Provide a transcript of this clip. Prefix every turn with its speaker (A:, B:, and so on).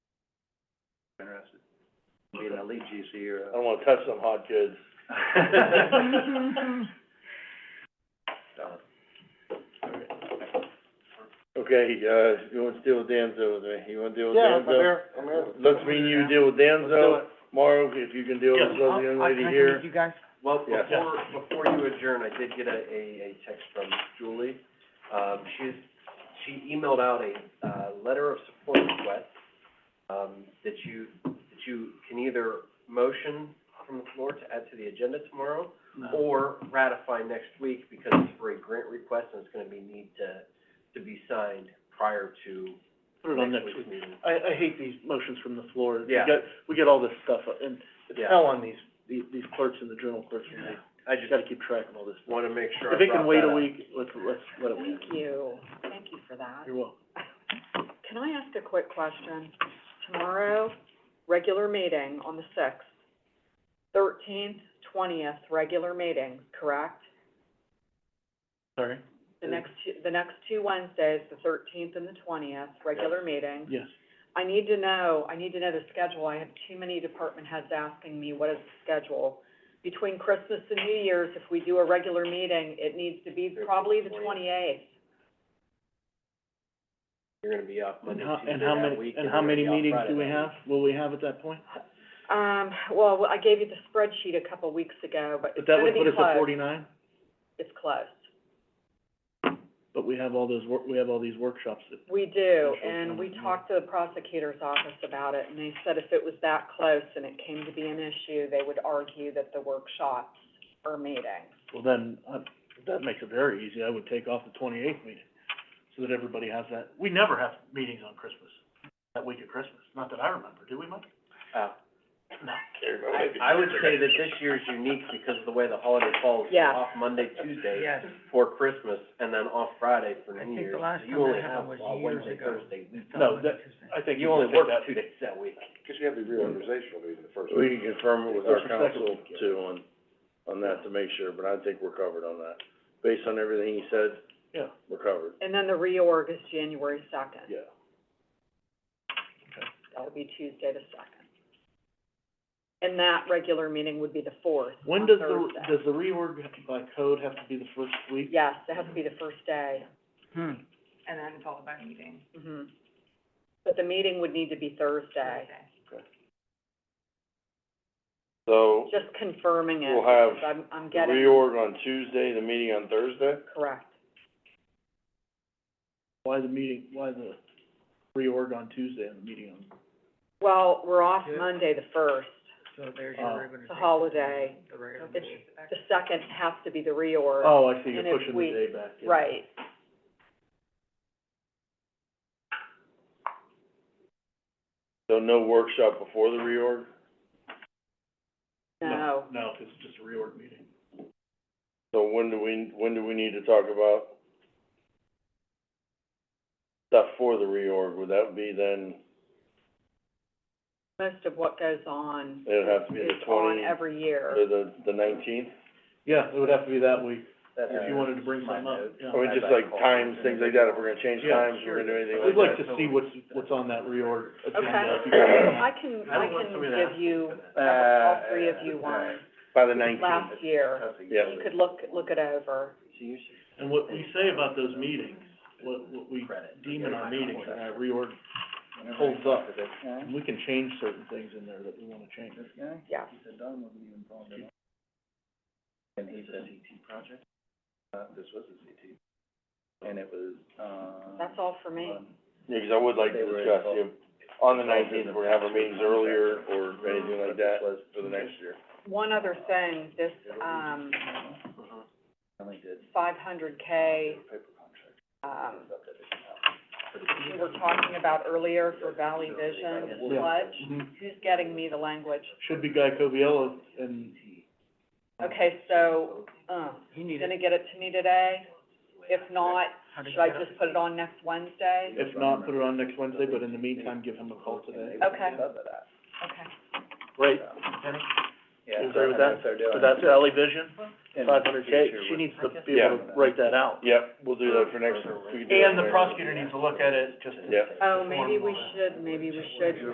A: interested. Be an elite GC or
B: I
A: a.
B: don't wanna touch them hot goods.
A: Oh. So,
B: Okay, uh, you wanna deal with Danzo with me? You wanna deal with
C: Yeah, I'm
B: Danzo?
C: here, I'm here.
B: Let's me and you deal with Danzo, Morrow, if you can deal with this
D: Oh,
B: other young lady here.
C: you guys.
A: Well,
B: Yeah.
A: before, before you adjourn, I did get a, a, a text from Julie. Um, she's, she emailed out a, uh, letter of support request, um, that you, that you can either motion from the floor to add to the agenda tomorrow, or ratify next week because it's for a grant request and it's gonna be need to, to be signed prior to
C: Put it on
A: next
C: next week.
A: week's meeting.
C: I, I hate these motions from the floor. We
A: Yeah.
C: get- We get all this stuff, uh, and it's
A: Yeah.
C: hell on these, these these clerks and the journal clerks, and they
A: I
C: just
A: just
C: gotta keep track of all this.
A: wanna make sure I
C: If it can
A: brought
C: wait
A: that
C: a
A: up.
C: week, let's, let's let it wait.
D: Thank you, thank you for that.
C: You're welcome.
D: Can I ask a quick question? Tomorrow, regular meeting on the sixth, thirteenth, twentieth, regular meetings, correct?
C: Sorry?
D: The
C: Mm.
D: next two, the next two Wednesdays, the thirteenth and the twentieth, regular meetings.
C: Yes.
D: I need to know, I need to know the schedule. I have too many department heads asking me, what is the schedule? Between Christmas and New Year's, if we do a regular meeting, it needs to be probably the twenty-eighth.
A: You're gonna be off
C: And
A: Monday,
C: how,
A: Tuesday
C: and how
A: that
C: many,
A: week,
C: and how
A: you're
C: many
A: gonna be off
C: meetings do we
A: Friday.
C: have, will we have at that point?
D: Um, well, I gave you the spreadsheet a couple weeks ago, but
C: But
D: it's
C: that
D: gonna
C: would
D: be
C: put
D: closed.
C: us at forty-nine,
D: It's closed.
C: but we have all those wor- we have all these workshops that,
D: We do,
C: Social
D: and we
C: planning, yeah.
D: talked to the prosecutor's office about it, and they said if it was that close and it came to be an issue, they would argue that the workshops are meetings.
C: well then, uh, that makes it very easy, I would take off the twenty-eighth meeting, so that everybody has that, we never have meetings on Christmas, that week of Christmas, not that I remember, do we, Mike?
A: Oh.
C: No.
A: I, I would say that this year's unique because of the way the holiday falls. You're
D: Yeah.
A: Off Monday, Tuesday for Christmas, and then off Friday for New Year's. So you only have uh, Wednesday, Thursday.
C: No, that, I think you
A: You only
C: should take
A: work
C: that,
A: two days that week.
E: reorganizational meeting the first
B: We can confirm it with our
C: First and second.
B: council too on, on that to make sure, but I think we're covered on that. Based on everything he said,
C: yeah,
B: we're covered,
D: And then the reorg is January second.
B: yeah.
D: That would be Tuesday the second. And that regular meeting would be the fourth,
C: When
D: on
C: does the,
D: Thursday.
C: does the reorg have to- by code have to be the first week?
D: Yes, it has to be the first day.
F: and then followed by meeting.
D: hmm But the meeting would need to be Thursday,
F: Thursday.
B: So,
D: just confirming it,
B: We'll have
D: because I'm, I'm
B: the
D: getting,
B: reorg on Tuesday, the meeting on Thursday?
D: correct.
C: Why the meeting, why the reorg on Tuesday and the meeting on,
D: Well, we're off Monday the first.
F: So there's
C: your Oh.
D: It's a holiday.
F: the regular
D: It's- The second has to be the reorg.
C: oh, I see, you're
D: And if
C: pushing
D: we-
C: the day back, yeah.
D: Right.
B: So no workshop before the reorg?
D: No.
C: No, 'cause it's just a reorg meeting.
B: So when do we, when do we need to talk about stuff for the reorg? Would that be then,
D: Most of what goes on
B: it'd have to be
D: is
B: the
D: on
B: twenty,
D: every year.
B: or the, the nineteenth?
C: Yeah, it would have to be that week,
A: That's
C: if you wanted to bring
A: my
C: something up,
A: note.
C: yeah.
B: I mean, just like times, things like that, if we're gonna change
C: Yeah,
B: times, if we're gonna do anything
C: We'd like
B: like that.
C: to see what's, what's on that reorg
D: Okay.
C: agenda. if you can-
D: I can, I can give you, all
B: Uh,
D: three of you one
B: By the nineteenth,
D: last year.
B: yeah.
D: You could look, look it over.
A: So you should
C: And what we say about those meetings, what, what we
A: credit.
C: deem in our meetings, and our reorg holds up, and we can change certain things in there that we wanna change.
D: Yeah.
A: And he's a CT project? Uh, this was a CT. And it was, uh.
D: That's all for me.
B: Yeah, 'cause I would like to
A: They were
B: discuss,
A: involved.
B: you know, on the nineteenth, we're gonna have our meetings earlier or anything like that for the next year.
D: One other thing, this, um,
A: Only did
D: five hundred K,
A: paper contract.
D: um,
A: Up that they can have.
D: we were talking about earlier for Valley Vision,
C: Yeah.
D: sludge.
C: Mhm.
D: Who's getting me the language?
C: Should be Guy Coviello, and
D: Okay, so, uh, gonna get it to me today? If not, should I just put it on next Wednesday?
C: if not, put it on next Wednesday, but in the meantime, give him a call today.
D: Okay.
A: Above that.
D: Okay.
C: Right,
A: Yeah.
C: You agree with that?
A: They're doing.
C: so that's Valley Vision,
A: In the
C: five hundred K,
A: future
C: she
A: with-
C: needs to be
B: Yeah.
C: able to write that out.
B: Yep, we'll do that for next, we can do that
C: And the
B: later.
C: prosecutor needs to look at it, just to
B: Yep.
D: Oh, maybe we Oh, should, maybe we should